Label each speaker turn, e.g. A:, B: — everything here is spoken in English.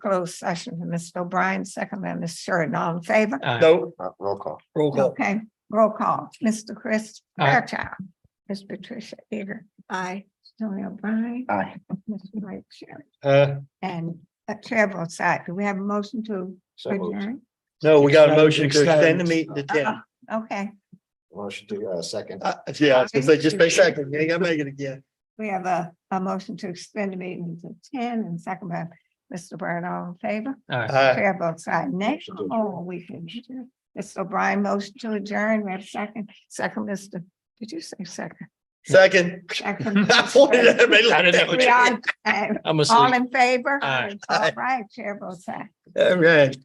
A: closed session to Mr. O'Brien, second by Ms. Sheridan, all in favor?
B: Aye.
C: No,
D: Uh, roll call.
B: Roll call.
A: Okay, roll call. Mr. Chris
B: Aye.
A: Fairchild. Ms. Patricia Eager. Aye. Tony O'Brien.
D: Aye.
A: Ms. Mike Sherry.
B: Uh,
A: And a chair votes aye. Do we have a motion to
D: So moved.
A: adjourn?
B: no, we got a motion to
C: Extend.
B: extend the meeting to ten.
A: Uh-uh. Okay,
D: Motion to, uh, second.
B: Uh, yeah, I was gonna say, just a second, you ain't gotta make it again.
A: we have a, a motion to extend the meeting to ten and second by Mr. Byrd, all in favor?
B: Aye.
A: Chair votes aye. Next,
D: Motion to adjourn.
A: oh, we can. Mr. O'Brien, motion to adjourn, we have second, second, Mr. Did you say second?
B: second.
A: Second.
B: I wanted to make it- I didn't know what
A: We
B: you-
A: are, uh,
E: I'm
A: All
E: asleep.
A: in favor?
E: Aye.
A: All right, chair votes aye.
B: All right.